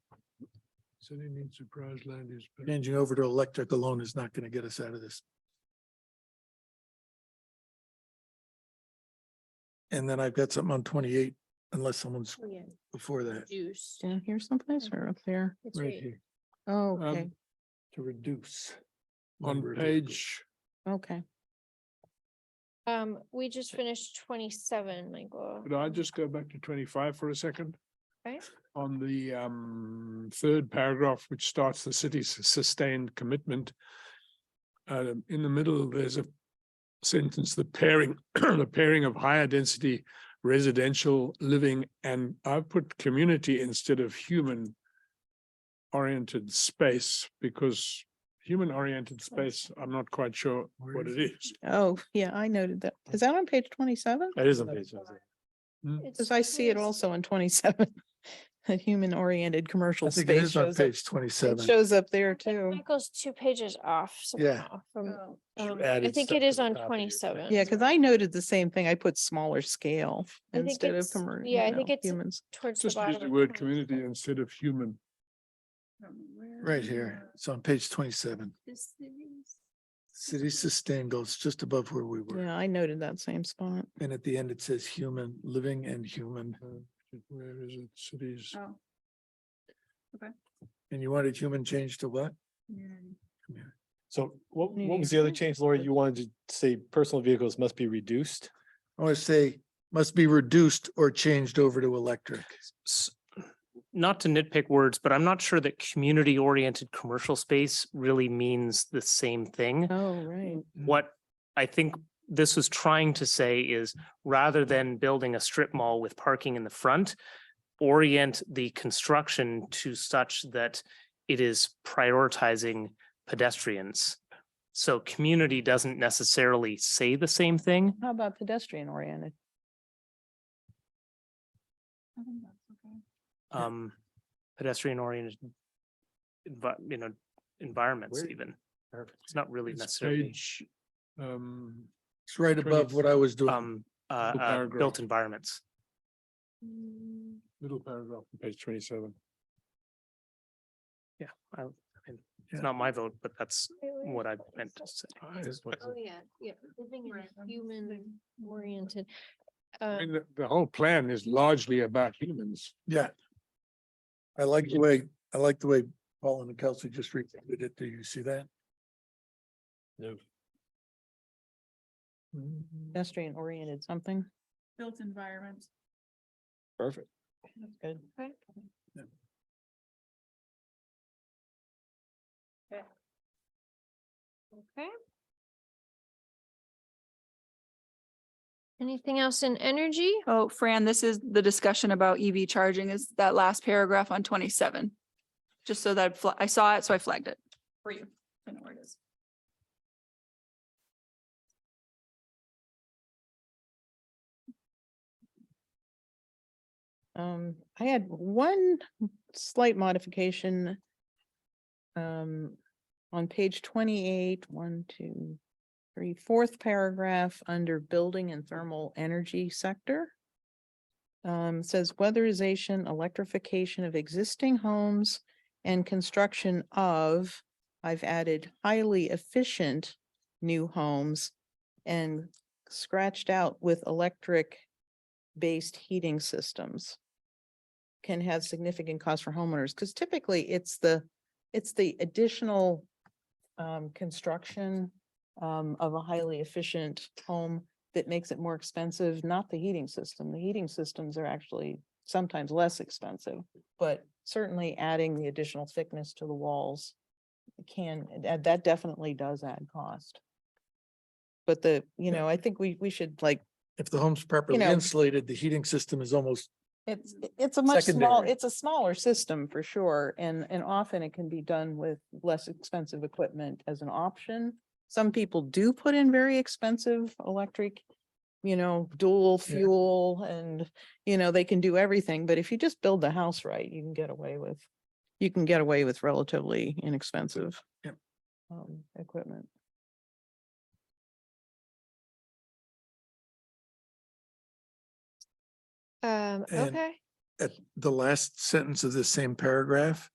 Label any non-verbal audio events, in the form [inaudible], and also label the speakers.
Speaker 1: City needs surprise land is. Changing over to electric alone is not gonna get us out of this. And then I've got something on twenty-eight, unless someone's
Speaker 2: Oh, yeah,
Speaker 1: before that,
Speaker 2: Juice.
Speaker 3: Down here someplace or up there?
Speaker 2: It's
Speaker 1: right
Speaker 2: right.
Speaker 1: here,
Speaker 3: Oh,
Speaker 1: Um,
Speaker 3: okay,
Speaker 1: to reduce.
Speaker 4: On
Speaker 1: number of vehicles.
Speaker 4: page,
Speaker 3: okay.
Speaker 2: Um, we just finished twenty-seven, Michael.
Speaker 4: could I just go back to twenty-five for a second?
Speaker 2: Okay.
Speaker 4: On the um third paragraph, which starts the city's sustained commitment. Uh, in the middle, there's a sentence, the pairing, [clears throat] the pairing of higher density residential living and I've put community instead of human oriented space because human oriented space, I'm not quite sure
Speaker 1: Where
Speaker 4: what
Speaker 1: is
Speaker 4: it is.
Speaker 3: Oh, [laughs] yeah, I noted that. Is that on page twenty-seven?
Speaker 4: That isn't.
Speaker 2: It's
Speaker 3: Cause I see it
Speaker 2: 20
Speaker 3: also on twenty-seven. [laughs] A human-oriented
Speaker 1: I
Speaker 3: commercial
Speaker 1: think it
Speaker 3: space
Speaker 1: is on
Speaker 3: shows up,
Speaker 1: page
Speaker 3: it
Speaker 1: twenty-seven.
Speaker 3: shows up there
Speaker 2: I think
Speaker 3: too.
Speaker 2: Michael's two pages off
Speaker 1: Yeah.
Speaker 2: somehow
Speaker 5: Oh.
Speaker 2: from,
Speaker 1: Should've
Speaker 2: um, I
Speaker 1: added
Speaker 2: think
Speaker 1: stuff
Speaker 2: it
Speaker 1: to
Speaker 2: is
Speaker 1: the
Speaker 2: on
Speaker 1: top of your
Speaker 2: twenty-seven.
Speaker 1: thing.
Speaker 3: Yeah, cause I noted the same thing. I put smaller scale
Speaker 2: I think
Speaker 3: instead of
Speaker 2: it's-
Speaker 3: commercial.
Speaker 2: yeah, I think it's-
Speaker 3: Humans.
Speaker 2: Towards the
Speaker 4: Just use
Speaker 2: bottom.
Speaker 4: the
Speaker 2: of
Speaker 4: word
Speaker 2: 27.
Speaker 4: community instead of human.
Speaker 1: Right here, it's on page twenty-seven. City sustained goals just above where we were.
Speaker 3: Yeah, I noted that same spot.
Speaker 1: And at the end, it says human, living and human.
Speaker 4: Uh, Where is it? Cities.
Speaker 5: Oh. Okay.
Speaker 1: And you wanted human change to what?
Speaker 2: Mm-hmm.
Speaker 6: So what,
Speaker 3: New
Speaker 6: what was the other
Speaker 3: Hampshire?
Speaker 6: change, Laura? You wanted to say personal vehicles must be reduced?
Speaker 1: I want to say must be reduced or changed over to electric.
Speaker 7: s- not to nitpick words, but I'm not sure that community oriented commercial space really means the same thing.
Speaker 3: Oh, right.
Speaker 7: What I think this was trying to say is rather than building a strip mall with parking in the front, orient the construction to such that it is prioritizing pedestrians. So community doesn't necessarily say the same thing.
Speaker 3: How about pedestrian oriented?
Speaker 1: Yeah.
Speaker 7: um, pedestrian oriented. But, you know, environments
Speaker 6: Where-
Speaker 7: even.
Speaker 6: Perfect.
Speaker 7: It's not really
Speaker 4: It's
Speaker 7: necessarily,
Speaker 4: page, Um,
Speaker 1: It's right above what I was doing.
Speaker 7: um, uh, uh,
Speaker 4: paragraph.
Speaker 7: built environments.
Speaker 4: middle paragraph, on page twenty-seven.
Speaker 7: Yeah, I, I mean,
Speaker 1: Yeah.
Speaker 7: it's not my vote, but that's
Speaker 2: Wait, wait,
Speaker 7: what I
Speaker 2: what is
Speaker 7: meant
Speaker 2: that?
Speaker 7: to say.
Speaker 2: Oh, yeah, yeah, living
Speaker 5: Right,
Speaker 2: and
Speaker 5: I'm
Speaker 2: human oriented.
Speaker 4: I
Speaker 2: Um,
Speaker 4: mean, the, the whole plan is largely about humans.
Speaker 1: Yeah. I like the way, I like the way Paul and Kelsey just repeated it. Do you see that?
Speaker 6: No.
Speaker 3: Pedestrian oriented something.
Speaker 5: Built environment.
Speaker 6: Perfect.
Speaker 3: That's good.
Speaker 2: okay. Okay. Okay. Anything else in energy?
Speaker 5: Oh, Fran, this is the discussion about EV charging is that last paragraph on twenty-seven. Just so that I fla- I saw it, so I flagged it. For you. I know where it is.
Speaker 3: Um, I had one slight modification. Um, on page twenty-eight, one, two, three, fourth paragraph, under building and thermal energy sector. Um, says weatherization, electrification of existing homes and construction of, I've added highly efficient new homes and scratched out with electric based heating systems can have significant cost for homeowners, because typically it's the, it's the additional um, construction um, of a highly efficient home that makes it more expensive, not the heating system. The heating systems are actually sometimes less expensive, but certainly adding the additional thickness to the walls can, that, that definitely does add cost. But the, you know, I think we, we should like
Speaker 1: If the home's properly
Speaker 3: know-
Speaker 1: insulated, the heating system is almost,
Speaker 3: It's, it- it's a much small,
Speaker 1: Secondary.
Speaker 3: it's a smaller system for sure, and, and often it can be done with less expensive equipment as an option. Some people do put in very expensive electric, you know, dual
Speaker 1: Yeah.
Speaker 3: fuel and, you know, they can do everything, but if you just build the house right, you can get away with, you can get away with relatively inexpensive
Speaker 1: Yep.
Speaker 3: um, equipment.
Speaker 2: Um,
Speaker 1: And-
Speaker 2: okay, Um,
Speaker 1: at the last sentence of this same paragraph,